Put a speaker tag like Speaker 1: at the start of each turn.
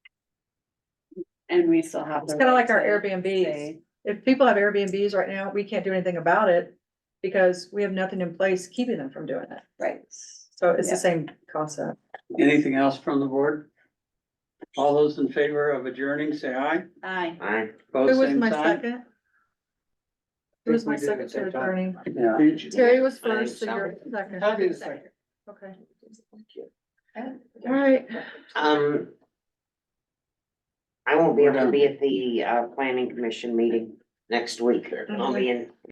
Speaker 1: and we still have.
Speaker 2: It's
Speaker 1: the
Speaker 2: kind of
Speaker 1: right
Speaker 2: like our
Speaker 1: to
Speaker 2: Airbnbs.
Speaker 1: say,
Speaker 2: If people have Airbnbs right now, we can't do anything about it because we have nothing in place keeping them from doing it.
Speaker 1: Right.
Speaker 2: So it's
Speaker 1: Yeah.
Speaker 2: the same concept.
Speaker 3: Anything else from the board? All those in favor of adjourning, say aye.
Speaker 1: Aye.
Speaker 4: I,
Speaker 3: Both
Speaker 2: Who was
Speaker 3: Oh, same
Speaker 2: my
Speaker 3: sign.
Speaker 2: second? Who was my
Speaker 3: I think we
Speaker 2: second
Speaker 3: did
Speaker 2: to
Speaker 3: at that time.
Speaker 2: attorney?
Speaker 3: Yeah.
Speaker 2: Terry was
Speaker 4: I am
Speaker 2: first, so you're second.
Speaker 3: Todd is second.
Speaker 2: Okay. All right.
Speaker 4: um. I won't be
Speaker 3: We're
Speaker 4: able to
Speaker 3: done.
Speaker 4: be at the uh planning commission meeting next week. I'll be in